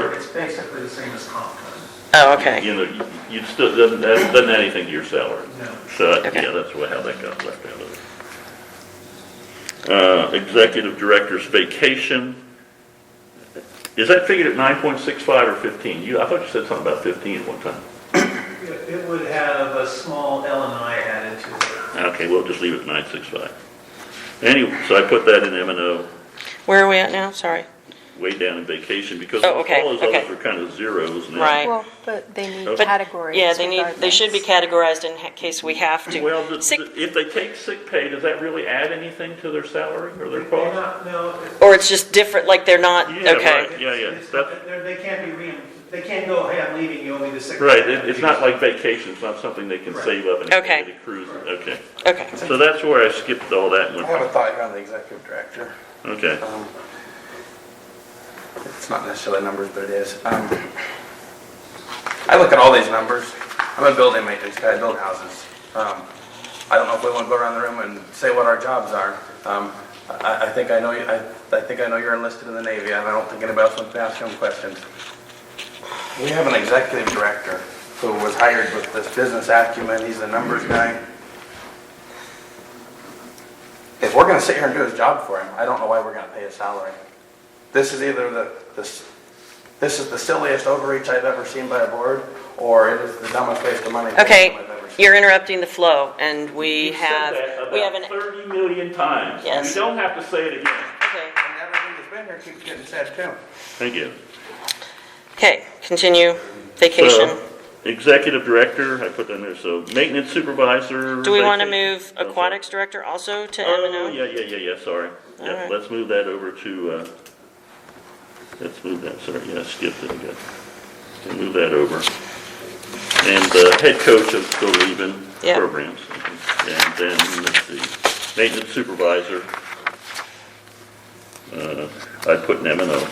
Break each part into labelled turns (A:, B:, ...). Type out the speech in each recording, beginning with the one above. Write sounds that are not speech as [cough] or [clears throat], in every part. A: basically the same as comp time.
B: Oh, okay.
C: You know, you- you still, doesn't, that doesn't add anything to your salary.
A: No.
C: So,
B: Okay.
C: yeah, that's what, how that got left out of it. Uh, executive director's vacation. Is that figured at nine point six five or fifteen? You, I thought you said something about fifteen at one time.
A: It it would have a small L and I added to it.
C: Okay, we'll just leave it at nine six five. Anyway, so I put that in M and O,
B: Where are we at now? Sorry.
C: way down in vacation, because
B: Oh,
C: all
B: okay,
C: those
B: okay.
C: others are kind of zeros now.
B: Right.
D: Well, but they need
C: But-
D: categories
B: Yeah, they need, they should be
D: regardless.
B: categorized in ha- case we have to.
C: Well, the-
B: Sick-
C: the- if they take sick pay, does that really add anything to their salary or their
A: They're
C: cost?
A: not, no, it-
B: Or it's just different, like they're not,
C: Yeah,
B: okay.
C: right. Yeah, yeah.
A: it's- it's- they're- They can't be re, they can't go, hey, I'm leaving, you owe me the six.
C: Right, it- it's not like vacation, it's not something they can save up and
B: Okay.
C: it accrues, okay.
B: Okay.
C: So that's where I skipped all that
E: I have a
C: one,
E: thought here on the executive director.
C: okay.
E: Um, It's not necessarily numbers, but it is. Um, I look at all these numbers. I'm a building maintenance guy, I build houses. Um, I don't know if we want to go around the room and say what our jobs are. Um, I, I think I know, you- I, I think I know you're enlisted in the Navy, and I don't think anybody else wants to ask you any questions. We have an executive director who was hired with this business acumen, he's a numbers guy. If we're gonna sit here and do his job for him, I don't know why we're gonna pay his salary. This is either the, this, this is the silliest overreach I've ever seen by a board, or it is the dumbest waste of money.
B: Okay,
E: I've ever seen.
B: you're interrupting the flow, and we
C: You said
B: have,
C: that
B: we have
C: about
B: an,
C: Thirty million times.
B: Yes.
C: You don't have to say it again.
B: okay.
E: And everything that's been here keeps getting said too.
C: Thank you.
B: Okay, continue, vacation.
C: So, Executive director, I put that in there, so maintenance supervisor.
B: Do we want to
C: vacation.
B: move
C: Oh, sorry.
B: aquatics director also to M and
C: Oh,
B: O?
C: yeah, yeah, yeah, yeah, sorry.
B: All
C: Yeah,
B: right.
C: let's move that over to, uh, let's move that, sorry, yeah, I skipped it again. We'll Move that over. And the head coach of the Leben
B: Yeah.
C: programs. And then let's see, maintenance supervisor. Uh, I put an M and O.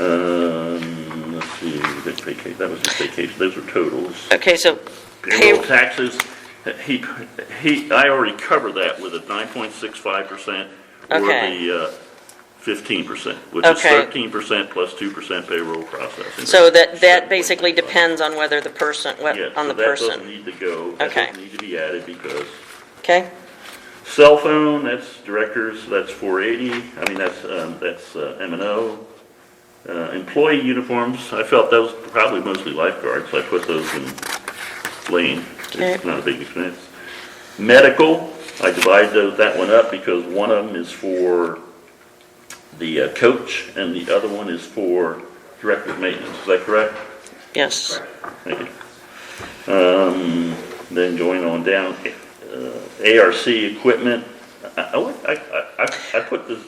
C: Um, let's see, vacation, that was just vacation, those are totals.
B: Okay, so
C: Payroll
B: pay,
C: taxes, he, he, I already covered that with a nine point six five percent or
B: Okay.
C: the uh, fifteen percent, which is
B: Okay.
C: thirteen percent plus two percent payroll processing.
B: so that, that basically
C: 7.65.
B: depends on whether the person, what-
C: Yes,
B: on
C: so
B: the
C: That doesn't
B: person,
C: need to go, that
B: Okay.
C: doesn't need to be added because
B: okay?
C: cell phone, that's directors, that's four eighty, I mean, that's, um, that's M and O. Uh, employee uniforms, I felt that was probably mostly lifeguards, I put those in lane,
B: Okay.
C: it's not a big expense. Medical, I divide tho- that one up because one of them is for the uh, coach and the other one is for director of maintenance, is that correct?
B: Yes.
C: Thank you. Um, Then going on down, uh, ARC equipment, I, I would- I, I- I- I put this,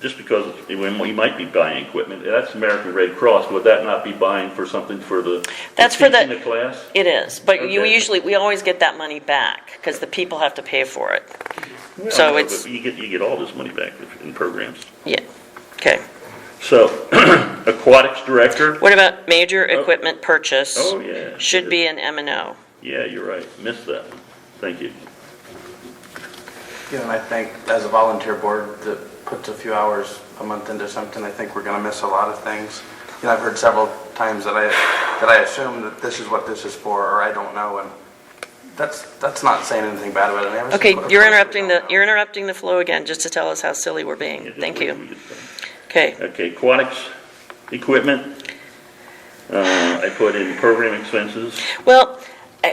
C: just because we might be buying equipment, that's American Red Cross, would that not be buying for something for the?
B: That's for the-
C: Teaching the class?
B: It is, but you
C: Okay.
B: usually, we always get that money back, because the people have to pay for it.
C: Well,
B: So
C: no, but
B: it's-
C: You get, you get all this money back if- in programs.
B: Yeah, okay.
C: So [clears throat] aquatics director,
B: What about major equipment purchase?
C: oh, yeah.
B: Should be in M and O.
C: Yeah, you're right, missed that one, thank you.
E: You know, and I think as a volunteer board that puts a few hours a month into something, I think we're gonna miss a lot of things. You know, I've heard several times that I, that I assume that this is what this is for, or I don't know, and that's, that's not saying anything bad about it. I mean,
B: Okay,
E: obviously, of
B: you're
E: course we
B: interrupting
E: don't
B: the,
E: know.
B: you're interrupting the flow again, just to tell us how silly we're
C: Yeah,
B: being.
C: just
B: Thank
C: wait till
B: you.
C: we get done.
B: Okay,
C: Okay, aquatics equipment, uh, I put in program expenses.
B: well,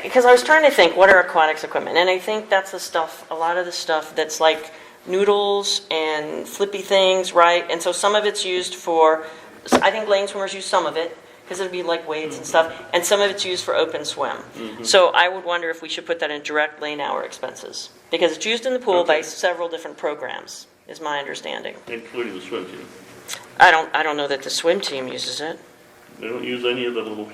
B: because I was trying to think, what are aquatics equipment? And I think that's the stuff, a lot of the stuff that's like noodles and flippy things, right? And so some of it's used for, so I think lane swimmers use some of it, because it'd be like weights and
C: Mm-hmm.
B: stuff, and some of it's used for open swim. So I would wonder if we should put that in direct lane hour expenses, because it's used in the pool by
C: Okay.
B: several different programs, is my understanding.
C: Including the swim team.
B: I don't, I don't know that the swim team uses it.
C: They don't use any of the little,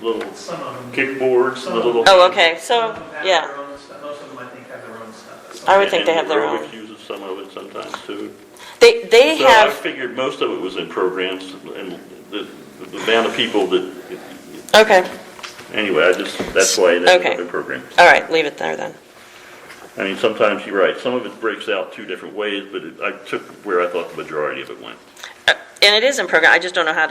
C: little
A: Some of them. do.
C: kickboards, the little.
B: Oh, okay, so,
A: Some of them have their
B: yeah,
A: own stuff. Most of them, I think, have their own stuff.
B: I would think they have their
C: And
B: own.
C: aerobics uses some of it sometimes too.
B: They, they
C: So I
B: have,
C: figured most of it was in programs and the, the amount of people that,
B: okay,
C: anyway, I just, that's why it ended up
B: Okay.
C: in programs.
B: all right, leave it there then.
C: I mean, sometimes you're right, some of it breaks out two different ways, but it- I took where I thought the majority of it went.
B: Uh, And it is in program, I just don't know how to.